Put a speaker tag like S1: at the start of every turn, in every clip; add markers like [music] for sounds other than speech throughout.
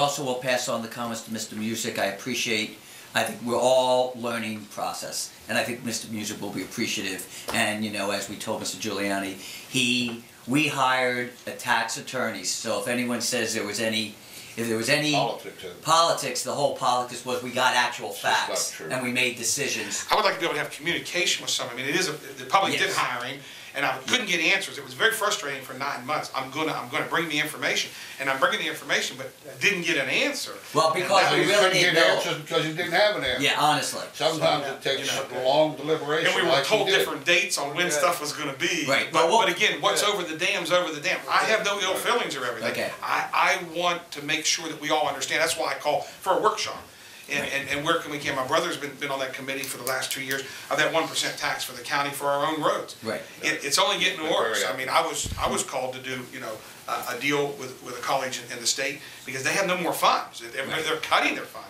S1: Also, will pass on the comments to Mr. Music. I appreciate, I think we're all learning process. And I think Mr. Music will be appreciative. And, you know, as we told Mr. Giuliani, he, we hired a tax attorney. So if anyone says there was any, if there was any
S2: Politics, uh,
S1: politics, the whole politics was we got actual
S2: not
S1: facts.
S2: true.
S1: And we made decisions.
S3: I would like to be able to have communication with someone. I mean, it is, a the public did
S1: Yes.
S3: hiring, and I couldn't get answers. It was very frustrating for nine months. I'm gonna, I'm gonna bring the information, and I'm bringing the information, but didn't get an answer.
S1: Well, because
S3: And
S1: we
S2: You
S3: that was-
S1: really need
S2: couldn't get
S1: Bill.
S2: answers because you didn't have an answer.
S1: Yeah, honestly.
S2: Sometimes it takes
S3: You know.
S2: long deliberation
S3: And we were
S2: like you
S3: told
S2: did.
S3: different dates on when
S4: Yeah.
S3: stuff was gonna be.
S1: Right.
S3: But,
S1: Well, what-
S3: but again, what's
S4: Yeah.
S3: over the dam's over the dam. I have no ill feelings or everything.
S1: Okay.
S3: I, I want to make sure that we all understand. That's why I call for a workshop. And, and, and where can we get, my brother's been, been on that committee for the last two years of that one percent tax for the county for our own roads.
S1: Right.
S3: It, it's only getting
S2: Very
S3: worse. I
S2: often.
S3: mean, I was, I was called to do, you know, a, a deal with, with a college in, in the state because they have no more funds. They're,
S1: Right.
S3: they're cutting their fund.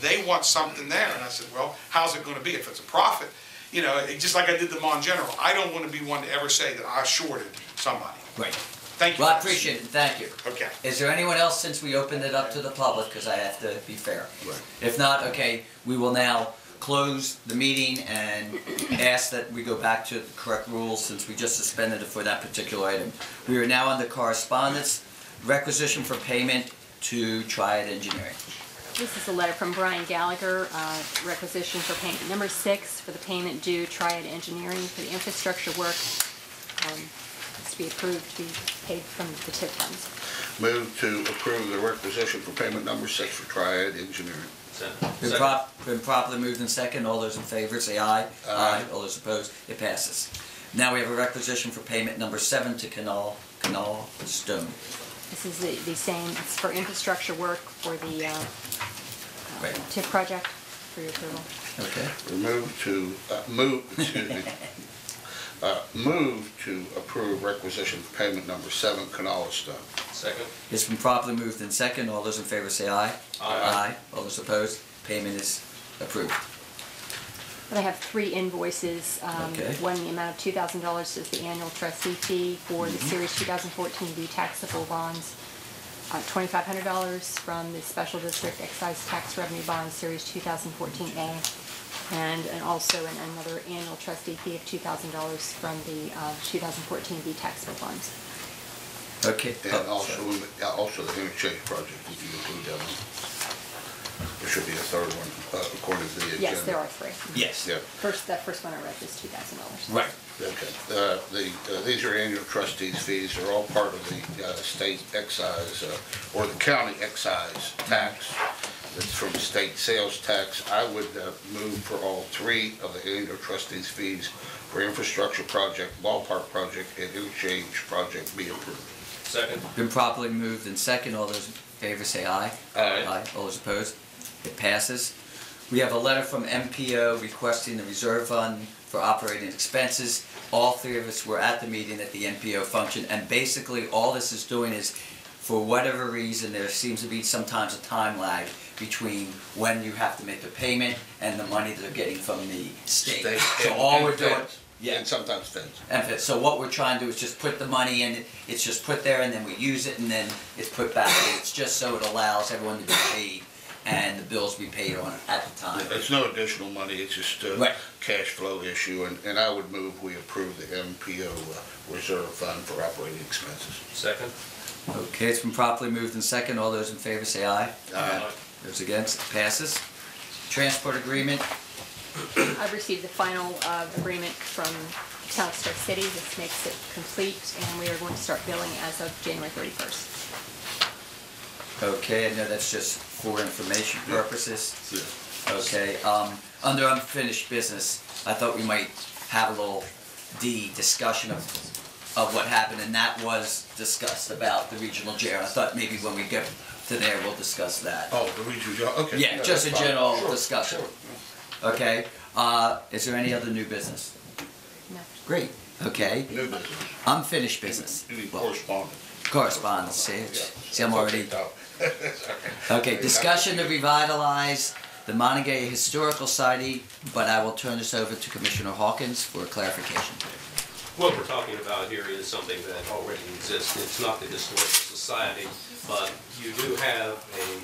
S3: They want something there. And I said, well, how's it gonna be if it's a profit? You know, it, just like I did the Mon General, I don't wanna be one to ever say that I shorted somebody.
S1: Right.
S3: Thank you.
S1: Well, I
S3: guys.
S1: appreciate it, thank you.
S3: Okay.
S1: Is there anyone else, since we opened it up to the public, because I have to be fair? If not, okay, we will now close the meeting and ask that we go back to the correct rules, since we just suspended it for that particular item. We are now on the correspondence, requisition for payment to Triad Engineering.
S5: This is a letter from Brian Gallagher, uh, requisition for payment number six for the payment due Triad Engineering for the infrastructure work. um, It's to be approved, to be paid from the TIP funds.
S2: Move to approve the requisition for payment number six for Triad Engineering.
S1: Been prop, been properly moved in second, all those in favor say aye. Aye. All those opposed, it passes. Now we have a requisition for payment number seven to Canal, Canal Stone.
S5: This is the the same, it's for infrastructure work for the uh,
S1: Right.
S5: TIP project for your approval.
S1: Okay.
S2: Move to, uh, move, excuse me, [laughs] Uh, move to approve requisition for payment number seven, Canal Stone.
S4: Second.
S1: It's been properly moved in second. All those in favor say aye.
S4: Aye.
S1: All those opposed, payment is approved.
S5: But I have three invoices, um,
S1: Okay.
S5: one in the amount of two thousand dollars is the annual trustee fee for the series two thousand fourteen B taxable bonds. Uh, twenty-five hundred dollars from the special district excise tax revenue bond, series two thousand fourteen A. And, and also an- another annual trustee fee of two thousand dollars from the, uh, two thousand fourteen B taxable bonds.
S1: Okay.
S2: And
S1: Oh,
S2: also,
S1: sorry.
S2: uh, also the interchange project, if you include that one. There should be a third one, uh, according to the agenda.
S5: Yes, there are three.
S1: Yes.
S2: Yeah.
S5: First, that first one I read was two thousand dollars.
S1: Right.
S2: Okay, Uh, the, uh, these are annual trustees fees, they're all part of the uh, state excise, uh, or the county excise tax, that's from state sales tax. I would uh, move for all three of the annual trustees fees for infrastructure project, ballpark project, and interchange project be approved.
S4: Second.
S1: Been properly moved in second. All those in favor say aye.
S4: Aye.
S1: All those opposed, it passes. We have a letter from MPO requesting the reserve fund for operating expenses. All three of us were at the meeting at the MPO function, and basically, all this is doing is, for whatever reason, there seems to be sometimes a time lag between when you have to make the payment and the money that they're getting from the state. So
S2: and-
S1: all
S2: and
S1: we're doing,
S2: feds,
S1: yeah.
S2: And sometimes feds.
S1: And if it- so what we're trying to do is just put the money in, it's just put there and then we use it and then it's put back. in. It's just so it allows everyone to be paid and the bills be paid on at the time.
S2: It's no additional money, it's just a
S1: Right.
S2: cash flow issue, and, and I would move we approve the MPO uh, reserve fund for operating expenses.
S4: Second.
S1: Okay, it's been properly moved and second. All those in favor say aye.
S2: Aye.
S1: Those against, it passes. Transport agreement,
S5: I've received the final uh, agreement from South Star City. This makes it complete, and we are going to start billing as of January 31st.
S1: okay, I know that's just for information purposes.
S2: Yeah.
S1: Okay, um, under unfinished business, I thought we might have a little D discussion of, of what happened, and that was discussed about the regional jail. I thought maybe when we get to there, we'll discuss that.
S2: Oh, the regional, yeah, okay.
S1: Yeah, just a
S2: that's fine.
S1: general
S2: Sure,
S1: discussion.
S2: sure.
S1: Okay, uh, is there any other new business?
S5: No.
S1: Great, okay,
S2: New business.
S1: unfinished business.
S2: You need
S1: Well,
S2: correspondence.
S1: Correspondence, see,
S2: Yeah.
S1: see, I'm already
S2: Okay, no. [laughs]
S1: Okay, discussion to revitalize the Montague Historical Society, but I will turn this over to Commissioner Hawkins for clarification.
S4: What we're talking about here is something that already exists. It's not the Historical Society, but you do have a